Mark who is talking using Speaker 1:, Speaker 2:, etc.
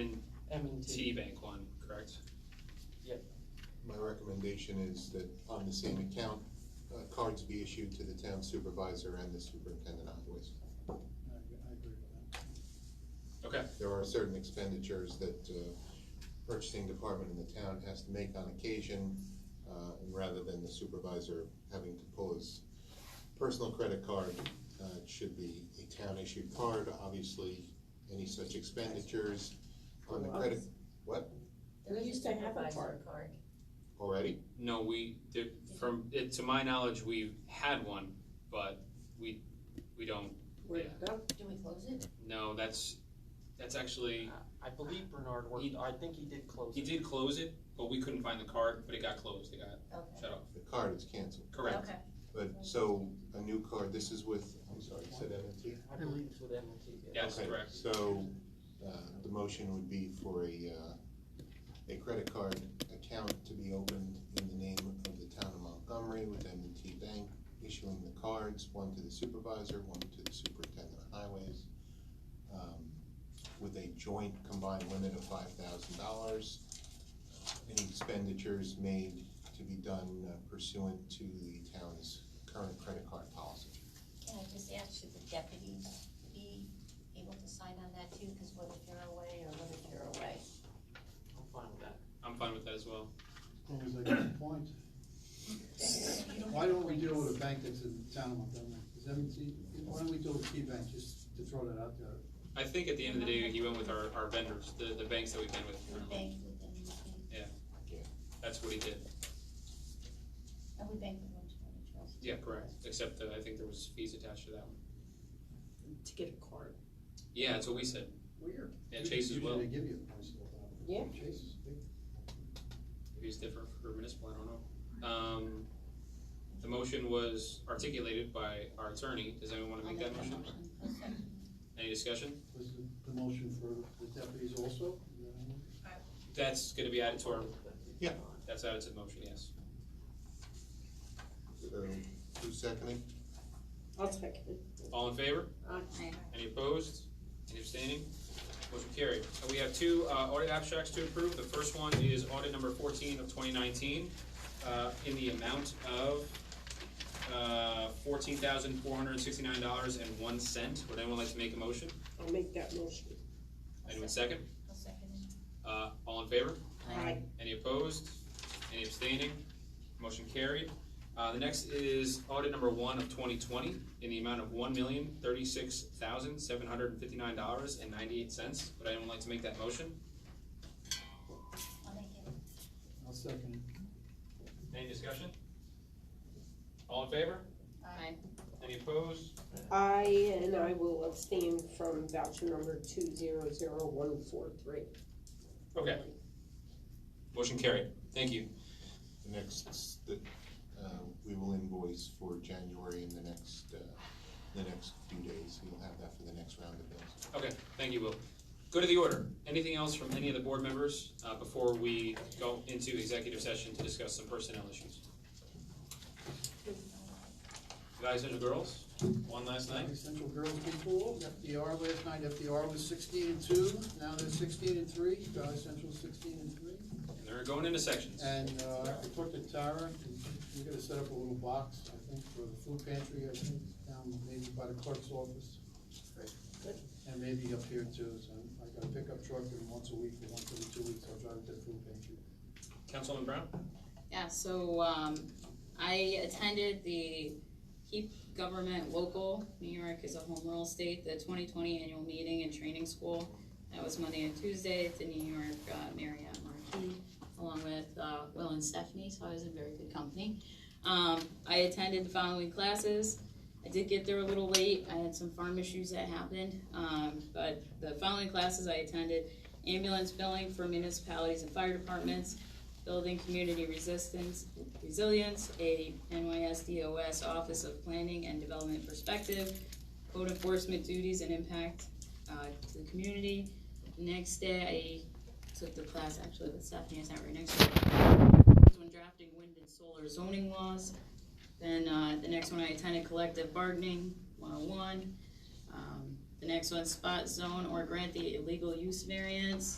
Speaker 1: M and T.
Speaker 2: TD Bank one, correct?
Speaker 3: My recommendation is that on the same account, uh, cards be issued to the town supervisor and the superintendent of highways.
Speaker 4: I, I agree with that.
Speaker 2: Okay,
Speaker 3: There are certain expenditures that uh, purchasing department in the town has to make on occasion, uh, and rather than the supervisor having to pull his personal credit card, uh, it should be a town-issued card, obviously, any such expenditures on the credit, what,
Speaker 1: We used to have a
Speaker 5: Supervisor card.
Speaker 3: already?
Speaker 2: no, we, there, from, it, to my knowledge, we've had one, but we, we don't,
Speaker 1: Where'd it go?
Speaker 5: Do we close it?
Speaker 2: no, that's, that's actually,
Speaker 1: I believe Bernard worked, I think he did close
Speaker 2: he
Speaker 1: it.
Speaker 2: did close it, but we couldn't find the card, but it got closed, it got
Speaker 5: Okay.
Speaker 2: shut off,
Speaker 3: The card is canceled,
Speaker 2: correct?
Speaker 5: Okay.
Speaker 3: but, so, a new card, this is with, I'm sorry, you said M&T?
Speaker 1: I believe it's with M and T, yeah.
Speaker 2: Yes,
Speaker 3: Okay,
Speaker 2: correct.
Speaker 3: So, uh, the motion would be for a, uh, a credit card account to be opened in the name of the town of Montgomery with m and t Bank, issuing the cards, one to the supervisor, one to the superintendent of highways, um, with a joint combined limit of five thousand dollars. Any expenditures made to be done uh, pursuant to the town's current credit card policy.
Speaker 5: Can I just ask, should the deputy be able to sign on that too? Because what if you're away or what if you're away?
Speaker 1: I'm fine with that.
Speaker 2: I'm fine with that as well.
Speaker 4: As long as they get the points. Why don't we deal with a bank that's in the town of Montgomery? Is M&T, why don't we deal with KeyBank, just to throw that out there?
Speaker 2: I think at the end of the day, he went with our, our vendors, the, the banks that we've been with,
Speaker 5: We bank with them, we-
Speaker 2: that's what he did,
Speaker 5: and we bank with one twenty trust.
Speaker 2: yeah, correct, except that I think there was fees attached to that one.
Speaker 6: to get a card.
Speaker 2: Yeah, that's what we said,
Speaker 6: Weird.
Speaker 2: yeah, Chase as well,
Speaker 4: Usually they give you the points. at the bottom.
Speaker 1: Yeah.
Speaker 4: Chase is big.
Speaker 2: maybe it's different for municipal, I don't know. Um, the motion was articulated by our attorney, does anyone wanna
Speaker 5: I'll
Speaker 2: make that motion?
Speaker 5: I'll second.
Speaker 2: Any discussion?
Speaker 4: Was the, the motion for the deputies also? Uh,
Speaker 2: That's gonna be added to our,
Speaker 3: Yeah.
Speaker 2: that's added to the motion, yes.
Speaker 3: So, who's seconding?
Speaker 6: I'll second it.
Speaker 2: All in favor? Any opposed? Any abstaining? Motion carried. Uh, We have two uh, audit abstracts to approve. The first one is audit number fourteen of twenty nineteen, uh, in the amount of uh, fourteen thousand four hundred and sixty-nine dollars and one cent. Would anyone like to make a motion?
Speaker 6: I'll make that motion.
Speaker 2: Anyone second?
Speaker 5: I'll second it.
Speaker 2: Uh, All in favor?
Speaker 6: Aye.
Speaker 2: Any opposed? Any abstaining? Motion carried. Uh, the next is audit number one of twenty twenty in the amount of one million thirty-six thousand seven hundred and fifty-nine dollars and ninety-eight cents. Would anyone like to make that motion?
Speaker 5: I'll make it.
Speaker 4: I'll second
Speaker 2: Any discussion? All in favor?
Speaker 5: Aye.
Speaker 2: Any opposed?
Speaker 6: I, and I will abstain from voucher number two zero zero one four three.
Speaker 2: Okay, motion carried. Thank you.
Speaker 3: The next, the, uh, we will invoice for January in the next, uh, the next few days. We'll have that for the next round of bills.
Speaker 2: Okay, thank you, Will. Go to the order. Anything else from any of the board members, uh, before we go into executive session to discuss some personnel issues? Guys and girls, one last night?
Speaker 4: it. Central Girls Big Pool, FDR last night, FDR was sixteen and two, now they're sixteen and three, Valley Central sixteen and three.
Speaker 2: And they're going into sections.
Speaker 4: And uh, I talked to Tara, and we're gonna set up a little box, I think, for the food pantry, I think, down maybe by the clerk's office.
Speaker 3: Great.
Speaker 6: Good.
Speaker 4: And maybe up here too, so I got a pickup truck and once a week, or once every two weeks, I'll drive it to the food pantry.
Speaker 2: Councilman Brown?
Speaker 7: Yeah, so, um, I attended the Keep Government Local, New York is a home rule state, the twenty twenty annual meeting and training school. That was Monday and Tuesday at the New York uh, Marriott Marquis, along with, uh, Will and Stephanie, so I was in very good company. Um, I attended the following classes. I did get there a little late, I had some farm issues that happened, um, but the following classes I attended, ambulance billing for municipalities and fire departments, Building Community Resistance, Resilience, a NYSDOS Office of Planning and Development Perspective, Code Enforcement Duties and Impact uh, to the Community. Next day, I took the class actually with Stephanie, I sat right next to her. This one drafting wind and solar zoning laws. Then uh, the next one, I attended Collective Bargaining 101. Um, The next one, spot zone or grant the illegal use variance.